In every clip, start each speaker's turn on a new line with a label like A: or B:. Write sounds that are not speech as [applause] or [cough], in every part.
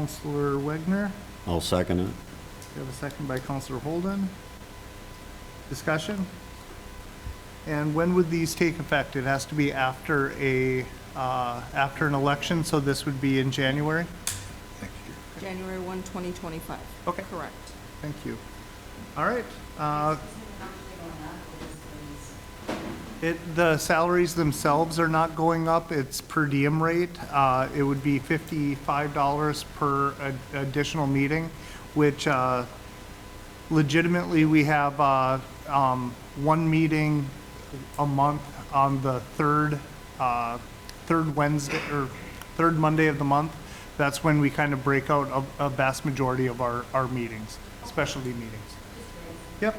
A: Counselor Wagner.
B: I'll second it.
A: We have a second by Counselor Holden. Discussion? And when would these take effect? It has to be after a, uh, after an election, so this would be in January?
C: January 1, 2025.
A: Okay.
C: Correct.
A: Thank you. All right. uh, It, the salaries themselves are not going up, it's per diem rate. Uh, It would be $55 per ad- additional meeting, which uh, legitimately, we have uh, um, one meeting a month on the third, uh, third Wednesday, or third Monday of the month. That's when we kind of break out a a vast majority of our, our meetings, specialty meetings. Yep.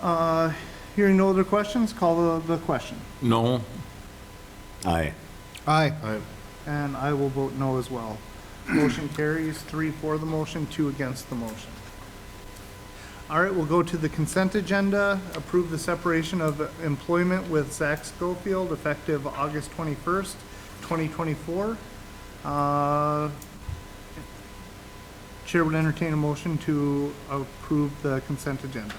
A: Uh, Hearing no other questions, call the, the question.
D: No.
B: Aye.
A: Aye. And I will vote no as well. Motion carries, three for the motion, two against the motion. All right, we'll go to the consent agenda. Approve the separation of employment with Zach Schofield effective August 21st, 2024. Uh, Chair would entertain a motion to approve the consent agenda.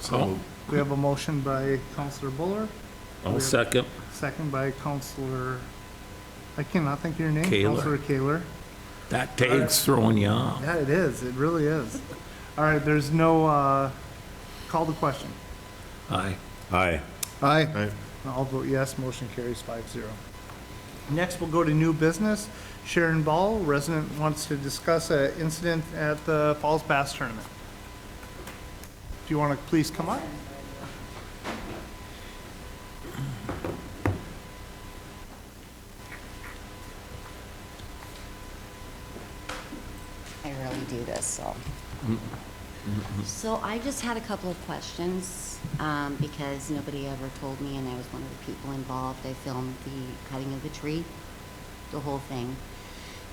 D: So.
A: We have a motion by Counselor Buller.
D: I'll second.
A: Second by Counselor, I cannot think of your name.
D: Kaler.
A: Counselor Kaler.
D: That takes throwing you off.
A: Yeah, it is. It really is. All right, there's no, uh, call the question.
D: Aye.
B: Aye.
A: Aye. I'll vote yes, motion carries five zero. Next, we'll go to new business. Sharon Ball, resident, wants to discuss an incident at the Falls Bass Tournament. Do you want to please come up?
E: I really do this, so. So I just had a couple of questions, um, because nobody ever told me, and I was one of the people involved. I filmed the cutting of the tree, the whole thing.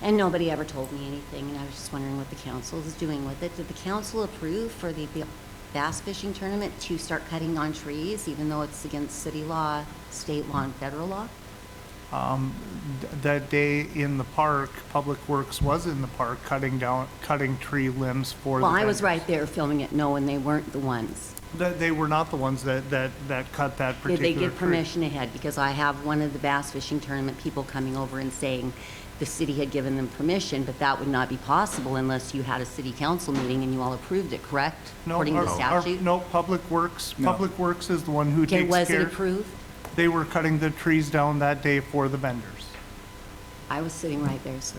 E: And nobody ever told me anything, and I was just wondering what the council is doing with it. Did the council approve for the ba- bass fishing tournament to start cutting on trees, even though it's against city law, state law, and federal law?
A: Th- That day in the park, Public Works was in the park cutting down, cutting tree limbs for the.
E: Well, I was
A: vendors.
E: right there filming it, No, and they weren't the ones.
A: That they were not the ones that, that, that cut that
E: Did
A: particular
E: they
A: tree.
E: give permission ahead? Because I have one of the bass fishing tournament people coming over and saying the city had given them permission, but that would not be possible unless you had a city council meeting and you all approved it, correct?
A: No,
E: According to
A: our- our-
E: statute?
A: No, Public Works, Public Works is the one who
E: Okay,
A: takes care.
E: was it approved?
A: They were cutting the trees down that day for the vendors.
E: I was sitting right there, sir.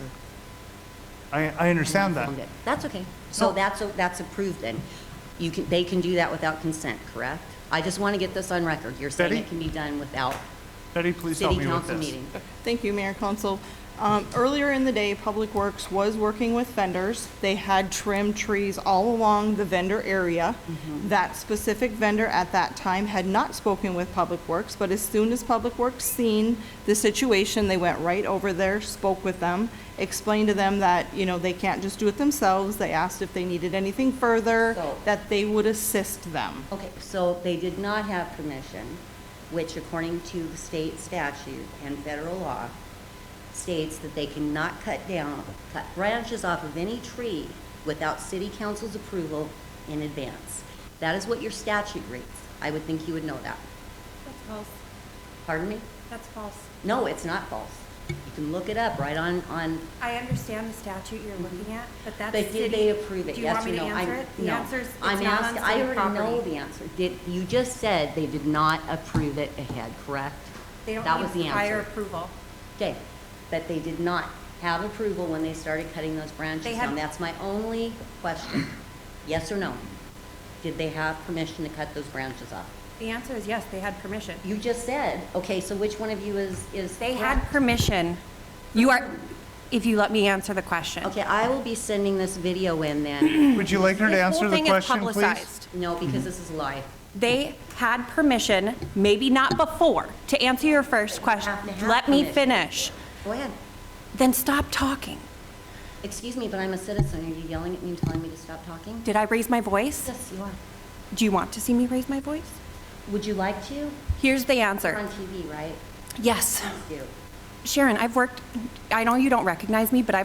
E: and
A: I, I
E: I
A: understand that.
E: filmed it. That's okay. So
A: No.
E: that's, that's approved then. You can, they can do that without consent, correct? I just want to get this on record. You're saying
A: Betty?
E: it can be done without
A: Betty, please help
E: city
A: me with
E: council
A: this.
E: meeting?
C: Thank you, Mayor Council. Um, Earlier in the day, Public Works was working with vendors. They had trimmed trees all along the vendor area. That specific vendor at that time had not spoken with Public Works, but as soon as Public Works seen the situation, they went right over there, spoke with them, explained to them that, you know, they can't just do it themselves. They asked if they needed anything further,
E: So-
C: that they would assist them.
E: Okay, so they did not have permission, which according to the state statute and federal law states that they cannot cut down, cut branches off of any tree without city council's approval in advance. That is what your statute reads. I would think you would know that.
F: That's false.
E: Pardon me?
F: That's false.
E: No, it's not false. You can look it up right on, on,
F: I understand the statute you're looking at, but that's
E: but did
F: city-
E: Mm-hmm. they approve it?
F: Do you want
E: Yes or
F: me to
E: no? I'm-
F: answer it? The
E: no.
F: answer is it's
E: I'm
F: not on
E: asking- I
F: city
E: already know
F: property.
E: the answer. Did, you just said they did not approve it ahead, correct?
F: They don't
E: That was
F: need
E: the
F: prior
E: answer.
F: approval.
E: Okay, but they did not have approval when they started cutting those
F: They
E: branches
F: had-
E: down. That's my only question. Yes or no? Did they have permission to cut those branches off?
F: The answer is yes, they had permission.
E: You just said, okay, so which one of you is, is?
F: They had permission. You are, if you let me answer the question.
E: Okay, I will be sending this video in then.
F: [coughs]
A: Would you like her to
F: This whole
A: answer the
F: thing is
A: question, please?
F: publicized.
E: No, because this is live.
F: They had permission, maybe not before. To answer your first question,
E: have to have
F: let me
E: permission.
F: finish.
E: Go ahead.
F: Then stop talking.
E: Excuse me, but I'm a citizen. Are you yelling at me and telling me to stop talking?
F: Did I raise my voice?
E: Yes, you are.
F: Do you want to see me raise my voice?
E: Would you like to?
F: Here's the
E: We're on
F: answer.
E: TV, right?
F: Yes.
E: Please do.
F: Sharon, I've worked, I know you don't recognize me, but I've